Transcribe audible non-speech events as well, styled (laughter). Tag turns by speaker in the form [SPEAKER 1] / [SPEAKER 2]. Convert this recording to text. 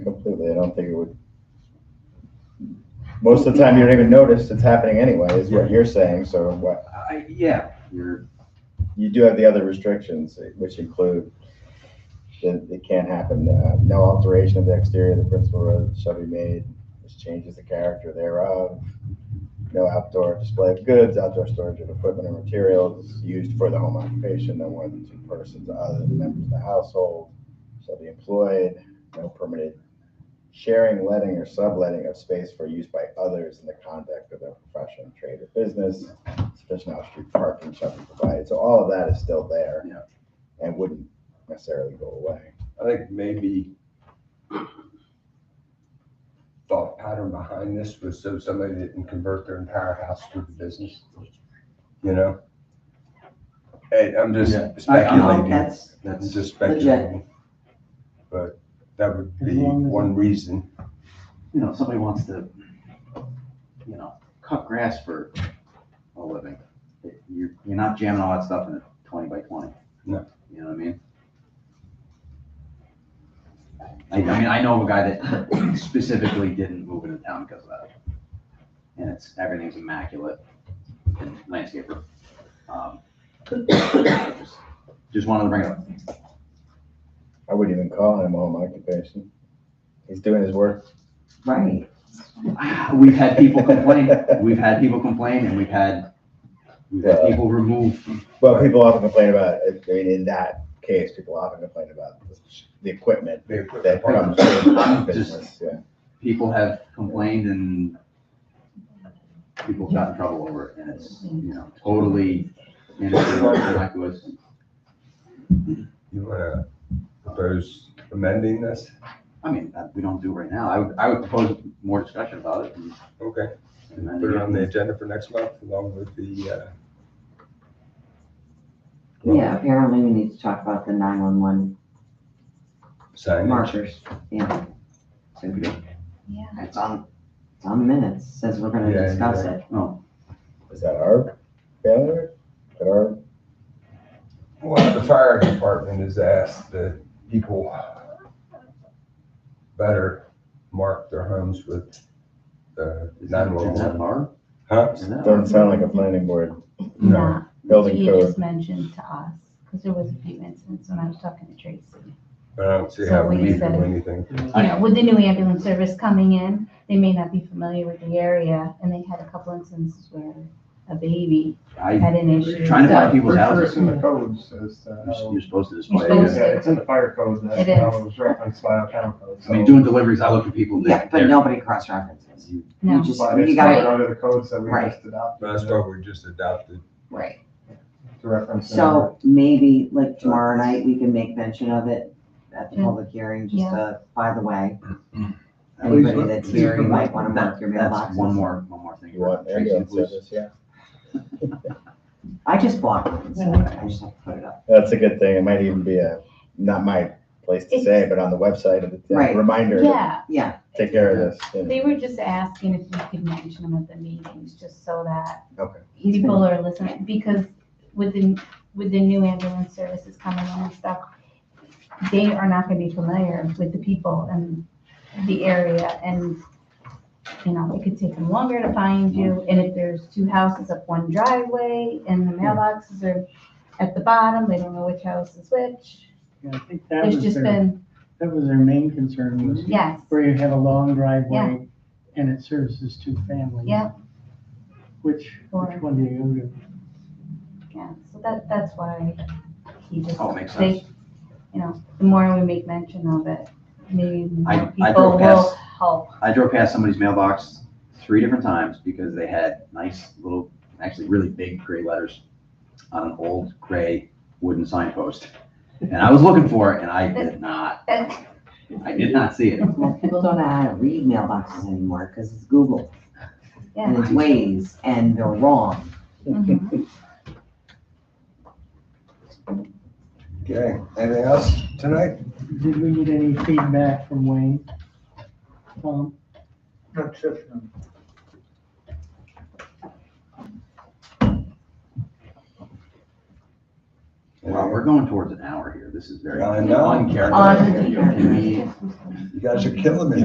[SPEAKER 1] don't think it would. Most of the time, you don't even notice it's happening anyway, is what you're saying, so what,
[SPEAKER 2] I, yeah, you're,
[SPEAKER 1] you do have the other restrictions, which include that it can't happen, uh, no alteration of the exterior of the principal road shall be made, which changes the character thereof. No outdoor display of goods, outdoor storage of equipment and materials used for the home occupation, no more than two persons other than members of the household shall be employed, no permitted sharing, letting, or subletting of space for use by others in the conduct of their profession, trade, or business. Sufficient off-street parking shall be provided, so all of that is still there.
[SPEAKER 2] Yeah.
[SPEAKER 1] And wouldn't necessarily go away.
[SPEAKER 2] I think maybe thought pattern behind this was so somebody didn't convert their entire house to a business, you know? And I'm just
[SPEAKER 3] Yeah.
[SPEAKER 4] Oh,
[SPEAKER 2] speculating.
[SPEAKER 5] That's,
[SPEAKER 2] I'm
[SPEAKER 5] that's
[SPEAKER 2] just
[SPEAKER 5] legit.
[SPEAKER 2] speculating. But that would be
[SPEAKER 3] As long as-
[SPEAKER 2] one reason.
[SPEAKER 5] You know, if somebody wants to, you know, cut grass for a living. it- You're, you're not jamming all that stuff in a twenty by twenty.
[SPEAKER 2] No.
[SPEAKER 5] You know what I mean? I, I mean, I know of a guy that (coughs) specifically didn't move into town because of that. And it's, everything's immaculate and landscaper. Um, (coughs) just- Just wanted to bring it up.
[SPEAKER 1] I wouldn't even call him a home occupation. He's doing his work.
[SPEAKER 5] Right. We've had people complain, we've had people complain, and we've had, we've had
[SPEAKER 1] Yeah.
[SPEAKER 5] people remove,
[SPEAKER 1] Well, people often complain about, I mean, in that case, people often complain about the- the equipment
[SPEAKER 2] They put
[SPEAKER 1] that
[SPEAKER 2] that
[SPEAKER 1] comes
[SPEAKER 2] part
[SPEAKER 1] with
[SPEAKER 5] Just-
[SPEAKER 1] business, yeah.
[SPEAKER 5] people have complained and people got in trouble over it, and it's, you know, totally innocuous.
[SPEAKER 2] You wanna propose amending this?
[SPEAKER 5] I mean, that we don't do right now, I would, I would propose more discussion about it. and-
[SPEAKER 2] Okay,
[SPEAKER 5] and then-
[SPEAKER 2] put it on the agenda for next month along with the, uh,
[SPEAKER 4] Yeah, apparently we need to talk about the nine-one-one
[SPEAKER 2] signage.
[SPEAKER 4] markers, yeah. So we-
[SPEAKER 6] Yeah.
[SPEAKER 4] It's on, it's on the minutes, says we're gonna
[SPEAKER 2] Yeah,
[SPEAKER 4] discuss
[SPEAKER 2] yeah.
[SPEAKER 4] it.
[SPEAKER 5] No,
[SPEAKER 1] Is that our failure? Is that our,
[SPEAKER 2] Well, the fire department has asked that people better mark their homes with uh, the
[SPEAKER 5] is that, is that
[SPEAKER 2] nine-one-one.
[SPEAKER 5] bar?
[SPEAKER 2] Huh?
[SPEAKER 5] Is that
[SPEAKER 1] doesn't sound like a planning board
[SPEAKER 2] No,
[SPEAKER 6] That
[SPEAKER 1] building
[SPEAKER 6] he
[SPEAKER 1] code.
[SPEAKER 6] just mentioned to us, because there was a few incidents when I was talking to Tracy.
[SPEAKER 2] but I don't see
[SPEAKER 6] So
[SPEAKER 2] how we
[SPEAKER 6] we
[SPEAKER 2] need to
[SPEAKER 6] said-
[SPEAKER 2] do anything.
[SPEAKER 5] I
[SPEAKER 6] You
[SPEAKER 5] know.
[SPEAKER 6] know, with the new ambulance service coming in, they may not be familiar with the area, and they had a couple instances where a baby
[SPEAKER 5] I,
[SPEAKER 6] had an issue.
[SPEAKER 5] Trying to
[SPEAKER 6] So
[SPEAKER 5] find people's
[SPEAKER 3] Pretty sure
[SPEAKER 5] houses.
[SPEAKER 3] It's in the codes, as to
[SPEAKER 5] you're
[SPEAKER 3] how-
[SPEAKER 5] you're supposed to
[SPEAKER 6] You're
[SPEAKER 5] display it.
[SPEAKER 6] supposed to-
[SPEAKER 3] yeah, um, it's in the fire code, that's
[SPEAKER 6] It
[SPEAKER 3] what I
[SPEAKER 6] is.
[SPEAKER 3] was referenced by our town code.
[SPEAKER 5] I mean,
[SPEAKER 3] so-
[SPEAKER 5] doing deliveries, I look at people,
[SPEAKER 4] Yeah,
[SPEAKER 5] they're,
[SPEAKER 4] but
[SPEAKER 5] they're,
[SPEAKER 4] nobody cross-references.
[SPEAKER 5] You-
[SPEAKER 4] You
[SPEAKER 6] No.
[SPEAKER 4] just,
[SPEAKER 3] But
[SPEAKER 4] you
[SPEAKER 3] it's
[SPEAKER 4] gotta,
[SPEAKER 3] covered under the codes that we
[SPEAKER 4] Right.
[SPEAKER 3] just adopted
[SPEAKER 2] That's
[SPEAKER 3] to
[SPEAKER 2] what we just adopted.
[SPEAKER 4] right,
[SPEAKER 3] reference. in our-
[SPEAKER 4] so maybe like tomorrow night, we can make mention of it at the public hearing, just
[SPEAKER 6] Yeah.
[SPEAKER 4] uh by the way.
[SPEAKER 5] Please
[SPEAKER 4] Anybody
[SPEAKER 5] look-
[SPEAKER 4] that's
[SPEAKER 5] please
[SPEAKER 4] here, you
[SPEAKER 5] provide-
[SPEAKER 4] might wanna
[SPEAKER 5] that-
[SPEAKER 4] mark your
[SPEAKER 5] That's one
[SPEAKER 4] mailboxes.
[SPEAKER 5] more, one more thing.
[SPEAKER 1] You want
[SPEAKER 5] Tracy,
[SPEAKER 1] ambulance
[SPEAKER 5] please.
[SPEAKER 1] service, yeah.
[SPEAKER 4] I just blocked it, so I just have to put it up.
[SPEAKER 1] That's a good thing. It might even be a, not my place to say, but on the website, of the
[SPEAKER 4] Right.
[SPEAKER 1] reminder, to
[SPEAKER 6] Yeah,
[SPEAKER 4] Yeah,
[SPEAKER 1] take care of this. you know.
[SPEAKER 6] they were just asking if you could mention them at the meetings, just so that
[SPEAKER 1] Okay.
[SPEAKER 4] he's been-
[SPEAKER 6] people are listening, because with the, with the new ambulance services coming in and stuff, they are not gonna be familiar with the people and the area, and, you know, it could take them longer to find you, and if there's two houses up one driveway, and the mailboxes are at the bottom, they don't know which house is which,
[SPEAKER 7] Yeah, I think that
[SPEAKER 6] there's
[SPEAKER 7] was
[SPEAKER 6] just
[SPEAKER 7] their,
[SPEAKER 6] been, Mm-hmm.
[SPEAKER 7] that was their main concern was
[SPEAKER 6] yes,
[SPEAKER 7] where you have a long driveway and it services two families.
[SPEAKER 6] Yeah.
[SPEAKER 7] Which,
[SPEAKER 6] Or-
[SPEAKER 7] which one do you go
[SPEAKER 6] yeah, so that, that's why he just.
[SPEAKER 5] Oh, makes
[SPEAKER 6] they-
[SPEAKER 5] sense.
[SPEAKER 6] You know, the more we make mention of it, maybe more
[SPEAKER 5] I, I
[SPEAKER 6] people
[SPEAKER 5] drove
[SPEAKER 6] will
[SPEAKER 5] past,
[SPEAKER 6] help. (laughs)
[SPEAKER 5] I drove past somebody's mailbox three different times because they had nice little, actually really big gray letters on an old gray wooden signpost. And I was looking for it and I did not,
[SPEAKER 6] And
[SPEAKER 5] I did not see it.
[SPEAKER 4] well, people don't know how to read mailboxes anymore, because it's Google. And
[SPEAKER 6] Yeah.
[SPEAKER 4] it's Waze, and they're wrong.
[SPEAKER 5] Mm-hmm.
[SPEAKER 6] Mhm.
[SPEAKER 2] Okay, anything else tonight?
[SPEAKER 7] to? Did we get any feedback from Wayne? Um,
[SPEAKER 3] Not system.
[SPEAKER 5] Wow, we're going towards an hour here. This is very
[SPEAKER 2] I know.
[SPEAKER 5] (laughs) uncharacteristic.
[SPEAKER 4] Uncharacteristic.
[SPEAKER 5] Can we-
[SPEAKER 2] You guys are killing me.